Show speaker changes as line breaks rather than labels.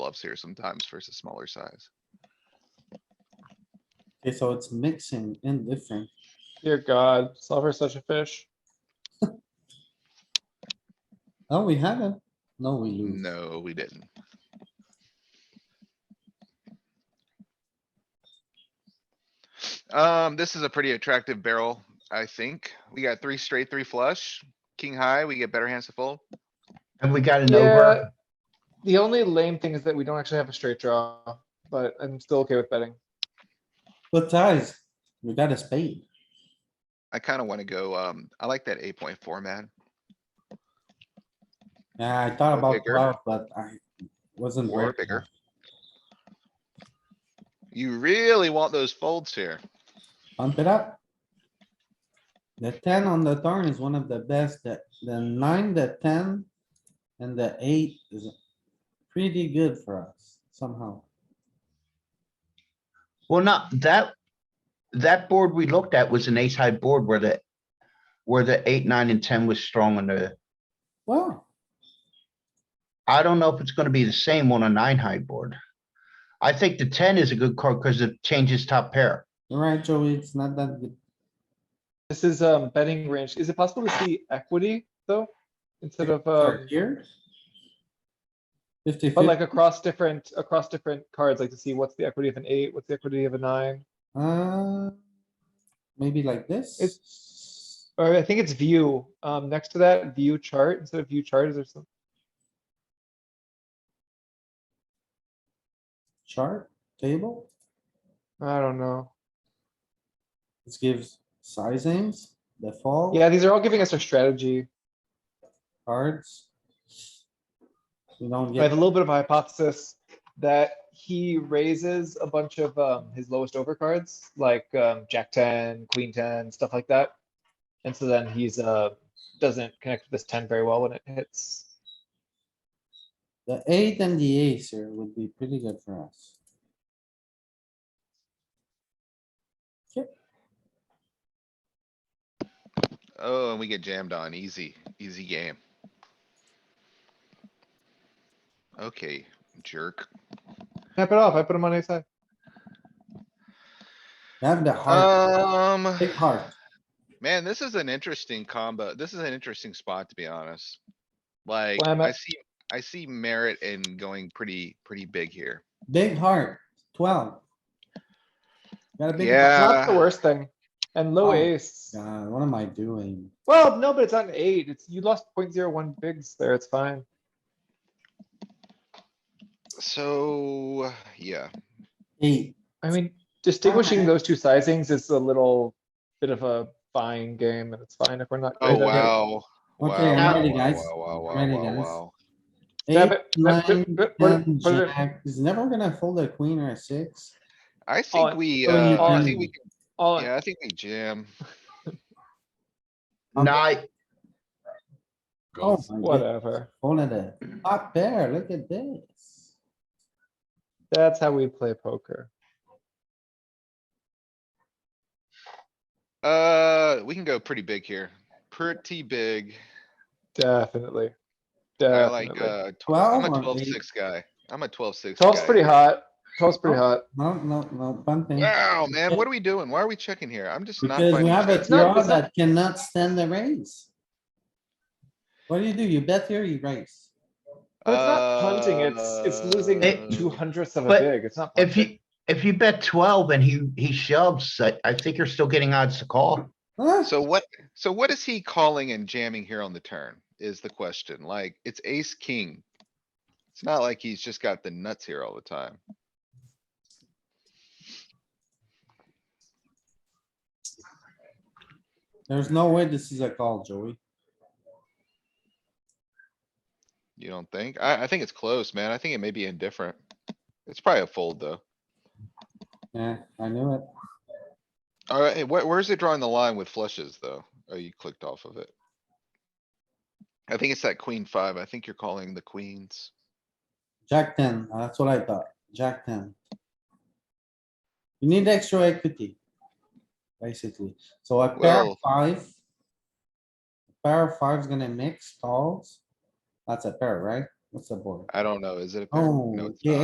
bluffs here sometimes versus smaller size.
Okay, so it's mixing and different.
Dear God, solver such a fish.
Oh, we have it. No, we lose.
No, we didn't. Um, this is a pretty attractive barrel, I think. We got three straight, three flush, king high, we get better hands to fold.
And we got an
Yeah,
over.
the only lame thing is that we don't actually have a straight draw, but I'm still okay with betting.
But guys, we got a spade.
I kinda wanna go, um, I like that eight point four, man.
Yeah, I thought
Or
about
bigger.
twelve, but I wasn't.
Or
worth it.
bigger. You really want those folds here.
Pump it up. The ten on the turn is one of the best, the, the nine, the ten, and the eight is pretty good for us somehow.
Well, not that, that board we looked at was an ace high board where the, where the eight, nine and ten was strong on the,
Well,
I don't know if it's gonna be the same on a nine high board. I think the ten is a good card because it changes top pair.
you're right, Joey, it's not that good.
This is, um, betting range. Is it possible to see equity though? Instead of, uh,
for here. Fifty
but like
fifty,
across different, across different cards, like to see what's the equity of an eight, what's the equity of a nine?
uh, maybe like this.
It's, or I think it's view, um, next to that view chart, instead of view chart, is there some,
Chart, table,
I don't know.
this gives sizings, the fall.
Yeah, these are all giving us our strategy.
Cards. You don't
I
get,
have a little bit of a hypothesis that he raises a bunch of um, his lowest over cards, like um, Jack ten, Queen ten, stuff like that. And so then he's uh doesn't connect with this ten very well when it hits.
the eight and the ace here would be pretty good for us.
Oh, and we get jammed on. Easy, easy game. Okay, jerk.
Snap it off. I put him on a side.
You Have the
Uh,
heart,
Um,
big heart.
man, this is an interesting combo. This is an interesting spot, to be honest. Like,
Why am
I
I-
see, I see merit in going pretty, pretty big here.
Big heart, twelve. Got a big.
Yeah.
heart.
Not the
Uh,
worst thing. And low
Oh,
ace.
God, what am I doing?
Well, no, but it's not an eight. It's you lost 0.01 bigs there. It's fine.
So, yeah,
Eight,
I mean, distinguishing
Okay.
those two sizings is a little bit of a fine game, and it's fine if we're not.
oh,
great at it.
wow. Wow,
Okay, I'm
wow,
ready,
wow,
guys.
wow, wow,
I'm
wow,
ready,
wow,
guys.
wow.
Grab
eight,
it, grab it,
nine,
grab it, put it-
ten,
put it in.
jack. He's never gonna fold a queen or a six.
I
it,
think we,
put it in
uh,
your
I
turn.
think we, can-
All in.
yeah, I think we jam.
Okay. Oh
Nine,
my goodness,
Whatever.
Folded a top pair, Ah, look at this.
That's how we play poker.
Uh, we can go pretty big here. Pretty big.
Definitely.
I like,
Definitely.
uh, tw- I'm
Twelve
a
or
twelve
eight?
six guy. I'm a twelve six.
Twelve's pretty hot. Twelve's pretty hot.
No, no, no, bunting.
Wow, man, what are we doing? Why are we checking here? I'm just not
Because we
finding.
have a
sense.
not-
draw
it's not-
that cannot stand the raise. What do you do? You bet here, you raise.
But it's not punting. It's, it's losing
Oh, Uh,
two hundredths of a
but
big. It's not.
if
punting.
you, if you bet twelve and he, he shoves, I, I think you're still getting odds to call.
Huh?
So what, so what is he calling and jamming here on the turn is the question. Like, it's ace, king. It's not like he's just got the nuts here all the time.
There's no way this is a call, Joey.
You don't think? I, I think it's close, man. I think it may be indifferent. It's probably a fold, though.
Yeah, I knew it.
Alright, where, where's it drawing the line with flushes, though? Oh, you clicked off of it. I think it's that queen five. I think you're calling the queens.
Jack ten, uh, that's what I thought. Jack ten. You need extra equity. Basically, so a pair
Well-
of five. a Pair of five's gonna mix calls. That's a pair, right? What's the board?
I don't know. Is it a pair?
Oh,
No, it's
yeah,
not.